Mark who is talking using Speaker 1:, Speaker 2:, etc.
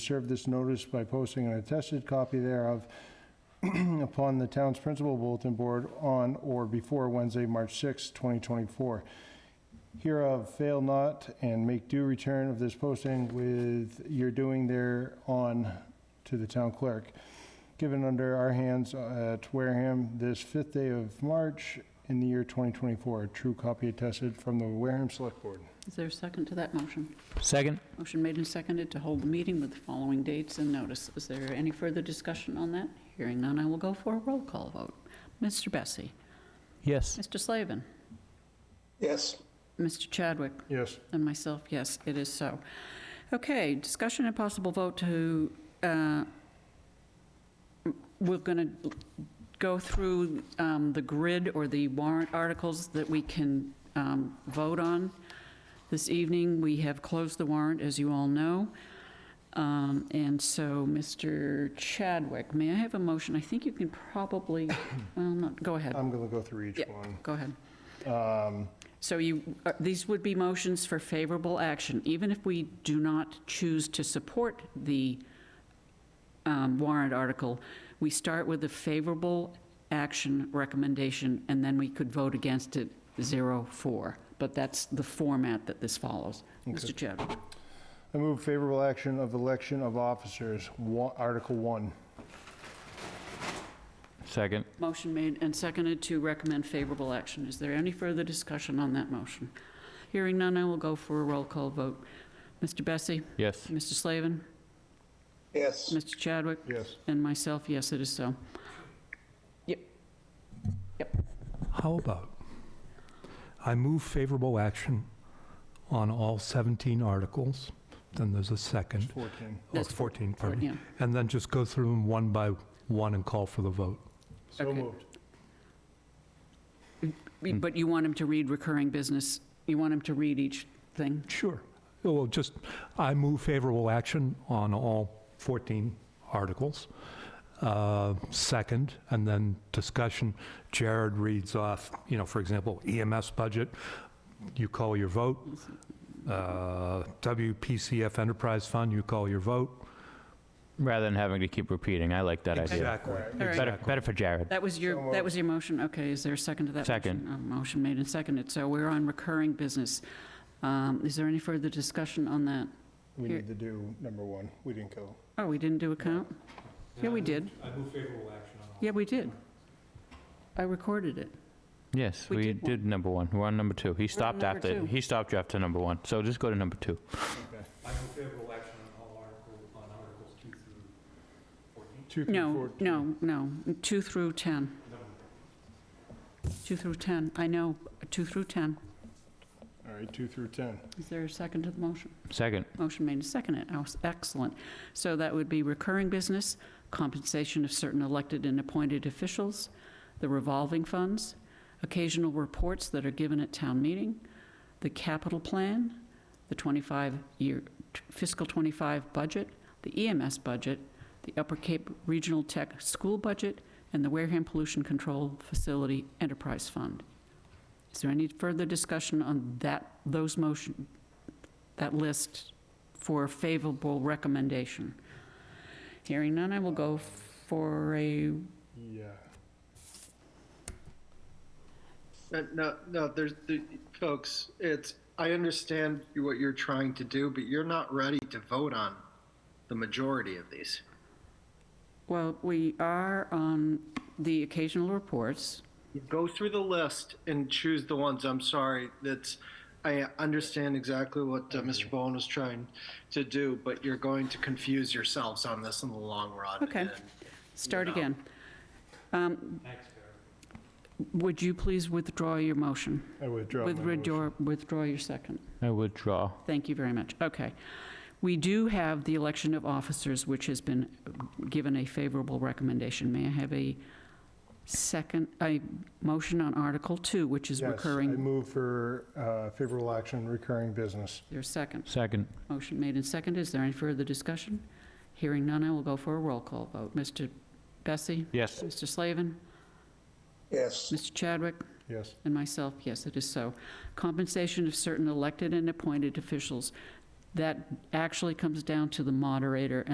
Speaker 1: serve this notice by posting an attested copy thereof upon the town's principal bulletin board on or before Wednesday, March 6, 2024. Hereof, fail not and make due return of this posting with your doing thereon to the town clerk. Given under our hands at Wareham this fifth day of March in the year 2024. True copy attested from the Wareham Select Board.
Speaker 2: Is there a second to that motion?
Speaker 3: Second?
Speaker 2: Motion made and seconded to hold the meeting with the following dates and notice. Is there any further discussion on that? Hearing none, I will go for a roll call vote. Mr. Bessie?
Speaker 3: Yes.
Speaker 2: Mr. Slavin?
Speaker 4: Yes,
Speaker 2: Mr. Chadwick?
Speaker 1: Yes.
Speaker 2: And myself, yes, it is so. Okay, discussion and possible vote to, uh, we're going to go through um, the grid or the warrant articles that we can um, vote on this evening. We have closed the warrant, as you all know. Um, And so, Mr. Chadwick, may I have a motion? I think you can probably, well, not, go ahead,
Speaker 1: I'm going to go through each
Speaker 2: Yeah.
Speaker 1: one.
Speaker 2: go ahead.
Speaker 1: Um,
Speaker 2: So you, uh, these would be motions for favorable action, even if we do not choose to support the um, warrant article. We start with the favorable action recommendation, and then we could vote against it, zero, four. But that's the format that this follows. Mr. Chadwick,
Speaker 1: I move favorable action of election of officers, wa- Article 1.
Speaker 3: Second?
Speaker 2: motion made and seconded to recommend favorable action. Is there any further discussion on that motion? Hearing none, I will go for a roll call vote. Mr. Bessie?
Speaker 3: Yes.
Speaker 2: Mr. Slavin?
Speaker 4: yes,
Speaker 2: Mr. Chadwick?
Speaker 1: Yes.
Speaker 2: And myself, yes, it is so.
Speaker 5: How about I move favorable action on all 17 articles, then there's a
Speaker 1: It's
Speaker 5: second,
Speaker 1: 14.
Speaker 5: or
Speaker 2: That's
Speaker 5: 14, pardon me,
Speaker 2: Yeah.
Speaker 5: and then just go through them one by one and call for the vote.
Speaker 1: So
Speaker 2: Okay.
Speaker 1: moved.
Speaker 3: Hmm.
Speaker 2: We- But you want him to read recurring business, you want him to read each thing?
Speaker 5: Sure. Well, just, I move favorable action on all 14 articles. Uh, Second, and then discussion, Jared reads off, you know, for example, EMS budget, you call your vote. Uh, WPCF Enterprise Fund, you call your vote.
Speaker 3: Rather than having to keep repeating, I like that idea.
Speaker 5: Exactly.
Speaker 2: right.
Speaker 3: Better, better for Jared.
Speaker 2: That was
Speaker 1: So
Speaker 2: your,
Speaker 1: moved.
Speaker 2: that was your motion, okay, is there a second to that? motion?
Speaker 3: Second.
Speaker 2: Uh, Motion made and seconded, so we're on recurring business. Um, Is there any further discussion on that?
Speaker 1: We
Speaker 2: Here.
Speaker 1: need to do number one. We didn't go.
Speaker 2: Oh, we didn't do a count? Yeah, we did,
Speaker 5: I move favorable action on all.
Speaker 2: yeah, we did. I recorded it.
Speaker 3: Yes,
Speaker 2: We
Speaker 3: we
Speaker 2: did one.
Speaker 3: did number one. We're on number two. He stopped
Speaker 2: number
Speaker 3: after,
Speaker 2: two.
Speaker 3: he stopped after number one. So just go to number two.
Speaker 5: I move favorable action on all articles, on articles two through 14.
Speaker 1: Two through
Speaker 2: No,
Speaker 1: 14.
Speaker 2: no, no, 2 through 10. 2 through 10, I know, 2 through 10.
Speaker 1: All right, 2 through 10.
Speaker 2: Is there a second to the motion?
Speaker 3: Second,
Speaker 2: Motion made and seconded. Oh, Excellent. So that would be recurring business, compensation of certain elected and appointed officials, the revolving funds, occasional reports that are given at town meeting, the capital plan, the 25-year fiscal 25 budget, the EMS budget, the Upper Cape Regional Tech School budget, and the Wareham Pollution Control Facility Enterprise Fund. Is there any further discussion on that, those motion, that list for a favorable recommendation. Hearing none, I will go for a,
Speaker 1: Yeah.
Speaker 6: Uh, No, no, there's the folks. It's I understand what you're trying to do, but you're not ready to vote on the majority of these.
Speaker 2: well, we are on the occasional reports.
Speaker 6: Go through the list and choose the ones. I'm sorry. That's I understand exactly what uh, Mr. Bowen was trying to do, but you're going to confuse yourselves on this in the long run.
Speaker 2: Okay.
Speaker 6: and-
Speaker 2: Start
Speaker 6: Yeah.
Speaker 2: again. Um, Would you please withdraw your motion?
Speaker 1: I withdraw my motion.
Speaker 2: Withdraw, withdraw your second.
Speaker 3: I withdraw.
Speaker 2: Thank you very much. Okay. We do have the election of officers, which has been given a favorable recommendation. May I have a second, a motion on Article 2, which is
Speaker 1: Yes, I
Speaker 2: recurring?
Speaker 1: move for uh, favorable action, recurring business.
Speaker 2: Your second.
Speaker 3: Second,
Speaker 2: Motion made and seconded. Is there any further discussion? Hearing none, I will go for a roll call vote. Mr. Bessie?
Speaker 3: yes.
Speaker 2: Mr. Slavin?
Speaker 4: yes,
Speaker 2: Mr. Chadwick?
Speaker 1: Yes.
Speaker 2: And myself, yes, it is so. Compensation of certain elected and appointed officials. That actually comes down to the moderator